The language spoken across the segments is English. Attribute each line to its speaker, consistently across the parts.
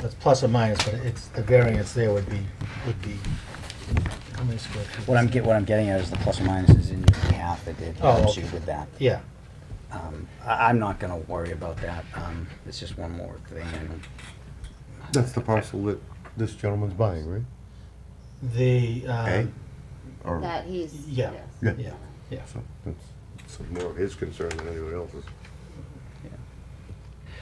Speaker 1: that's plus or minus, but it's, the variance there would be, would be, how many square feet?
Speaker 2: What I'm get, what I'm getting at is the plus or minus is in your behalf that it
Speaker 1: Oh,
Speaker 2: helps
Speaker 1: okay.
Speaker 2: you with that.
Speaker 1: Yeah,
Speaker 2: Um, I, I'm not gonna worry about that. Um, it's just one more thing and
Speaker 3: That's the parcel that this gentleman's buying, right?
Speaker 1: the, uh,
Speaker 3: A? Or,
Speaker 4: That he's,
Speaker 1: yeah,
Speaker 4: yes.
Speaker 3: Yeah.
Speaker 1: yeah, yeah.
Speaker 3: so, it's, it's more of his concern than anyone else's.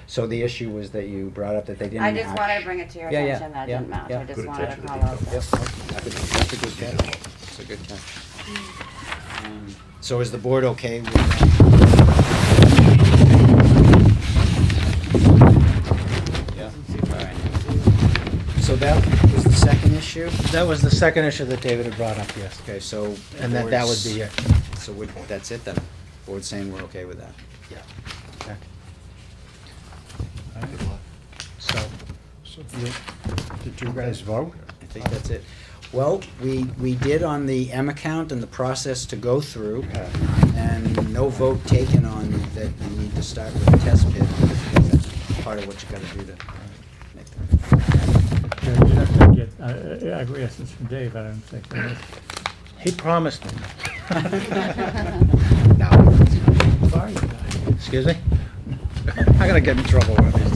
Speaker 2: So the issue was that you brought up that they didn't.
Speaker 4: I just
Speaker 2: match-
Speaker 4: wanted to bring it to your
Speaker 2: Yeah, yeah,
Speaker 4: attention, that
Speaker 2: yeah,
Speaker 4: didn't match,
Speaker 2: yeah.
Speaker 4: I just
Speaker 3: Good
Speaker 4: wanted to
Speaker 3: attention to
Speaker 4: call out
Speaker 3: detail.
Speaker 4: that.
Speaker 2: Yep, that's a good- that's a good catch. That's a good catch. Um, So is the board okay with that? Yeah, all right. So that was the second issue?
Speaker 1: That was the second issue that David had brought up, yes.
Speaker 2: Okay, so.
Speaker 1: And that, that would be it,
Speaker 2: board's- So would, that's it then? Board saying we're okay with that?
Speaker 1: yeah.
Speaker 2: Okay.
Speaker 1: So, you-
Speaker 2: Did
Speaker 3: You guys vote?
Speaker 2: I think that's it. Well, we, we did on the M account and the process to go through, and no vote taken on that you need to start with the test pit, because that's part of what you gotta do to make that.
Speaker 5: Yeah, you'd have to get uh, uh, acquiescence from Dave, I don't think. unless-
Speaker 1: he promised me,
Speaker 5: Sorry, guys.
Speaker 1: excuse me? I'm gonna get in trouble with this.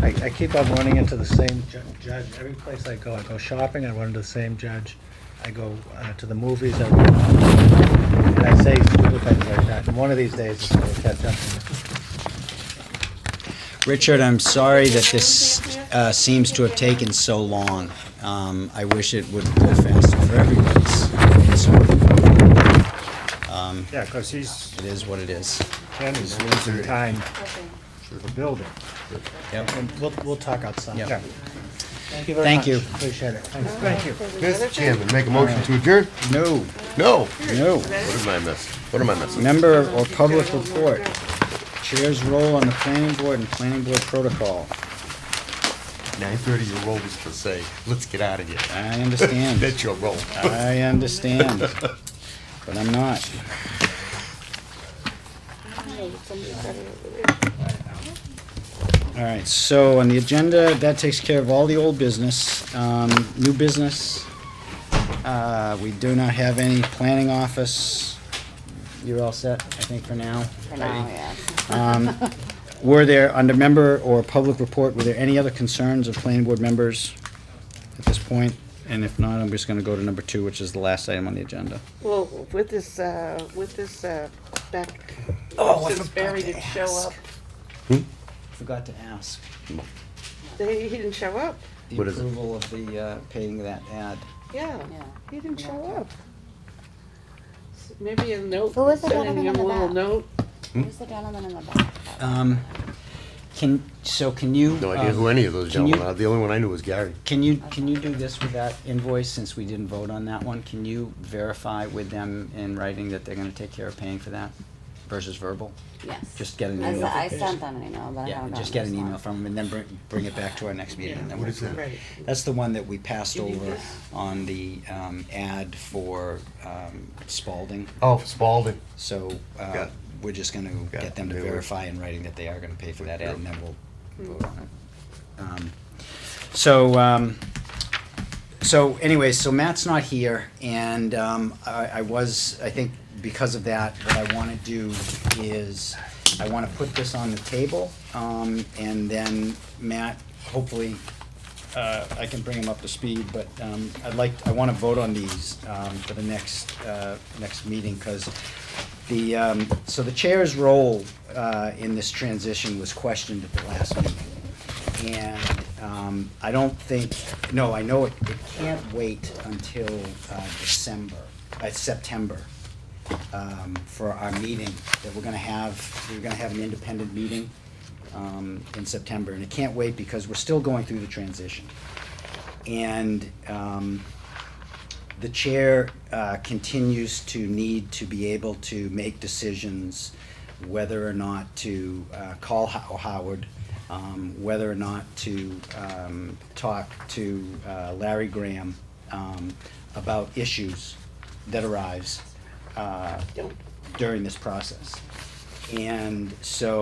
Speaker 1: I, I keep on running into the same ju- judge, every place I go, I go shopping, I run into the same judge, I go uh, to the movies, I, and I say stupid things like that, and one of these days it's gonna catch up to me.
Speaker 2: Richard, I'm sorry that this, uh, seems to have taken so long. Um, I wish it would go faster for everybody's concern. Um,
Speaker 6: Yeah, because he's,
Speaker 2: it is what it is.
Speaker 6: Kenny's losing time for building.
Speaker 2: Yep.
Speaker 1: And we'll, we'll talk outside.
Speaker 2: Yep.
Speaker 6: Yeah.
Speaker 1: Thank you very
Speaker 2: Thank
Speaker 1: much.
Speaker 2: you.
Speaker 1: Appreciate it. Thanks.
Speaker 6: Thank you.
Speaker 3: Mr. Chairman, make a motion to adjourn?
Speaker 2: No,
Speaker 3: No.
Speaker 2: no.
Speaker 3: What am I missing? What am I missing?
Speaker 2: Member or public report. Chair's role on the planning board and planning board protocol.
Speaker 3: Nine thirty, your role was to say, let's get out of here.
Speaker 2: I understand.
Speaker 3: That's your role.
Speaker 2: I understand. But I'm not. All right, so on the agenda, that takes care of all the old business. Um, new business, uh, we do not have any planning office. You're all set, I think, for now?
Speaker 4: For now, yes.
Speaker 2: Were there, under member or public report, were there any other concerns of planning board members at this point? And if not, I'm just gonna go to number two, which is the last item on the agenda.
Speaker 7: Well, with this, uh, with this, uh, back,
Speaker 2: Oh,
Speaker 7: since Barry didn't show up,
Speaker 2: Forgot to ask,
Speaker 7: they, he didn't show up,
Speaker 2: the
Speaker 3: What is it?
Speaker 2: approval of the, uh, paying that ad.
Speaker 7: yeah,
Speaker 4: Yeah.
Speaker 7: he didn't show
Speaker 4: Yeah.
Speaker 7: up. S- Maybe a note,
Speaker 4: Who was the
Speaker 7: sending
Speaker 4: gentleman in
Speaker 7: him a
Speaker 4: the
Speaker 7: little
Speaker 4: back?
Speaker 7: note,
Speaker 3: Hmm?
Speaker 4: Who's the gentleman in the back?
Speaker 2: Um, can, so can you?
Speaker 3: No idea
Speaker 2: um,
Speaker 3: who any of those
Speaker 2: can you-
Speaker 3: gentlemen are. The only one I knew was Gary.
Speaker 2: Can you, can you do this with that invoice, since we didn't vote on that one? Can you verify with them in writing that they're gonna take care of paying for that versus verbal?
Speaker 4: Yes.
Speaker 2: Just get an
Speaker 4: I s-
Speaker 2: email.
Speaker 4: I sent them an email, but I
Speaker 2: Yeah,
Speaker 4: haven't
Speaker 2: and
Speaker 4: gotten
Speaker 2: just get an
Speaker 4: this
Speaker 2: email
Speaker 4: one.
Speaker 2: from them and then bring, bring it back to our next meeting. and then
Speaker 3: What
Speaker 2: we'll-
Speaker 3: is that?
Speaker 7: right,
Speaker 2: That's the one that we passed
Speaker 7: You need
Speaker 2: over
Speaker 7: this?
Speaker 2: on the, um, ad for, um, Spalding.
Speaker 3: Oh, Spalding.
Speaker 2: So,
Speaker 3: Got
Speaker 2: uh,
Speaker 3: it.
Speaker 2: we're just gonna
Speaker 3: Got
Speaker 2: get
Speaker 3: it.
Speaker 2: them to
Speaker 3: They were-
Speaker 2: verify in writing that they are gonna pay for that ad and then we'll
Speaker 7: Mm.
Speaker 2: vote on it. Um, So, um, so anyway, so Matt's not here, and um, I, I was, I think because of that, what I want to do is, I want to put this on the table, um, and then Matt, hopefully, uh, I can bring him up to speed, but um, I'd like, I want to vote on these um, for the next, uh, next meeting, because the, um, so the chair's role uh, in this transition was questioned at the last meeting. And um, I don't think, no, I know it it can't wait until uh, December, uh, September, um, for our meeting that we're gonna have, we're gonna have an independent meeting um, in September. And it can't wait because we're still going through the transition. And um, the chair uh, continues to need to be able to make decisions whether or not to uh, call Ho- Howard, um, whether or not to um, talk to uh, Larry Graham um, about issues that arise uh,
Speaker 7: don't
Speaker 2: during this process. And so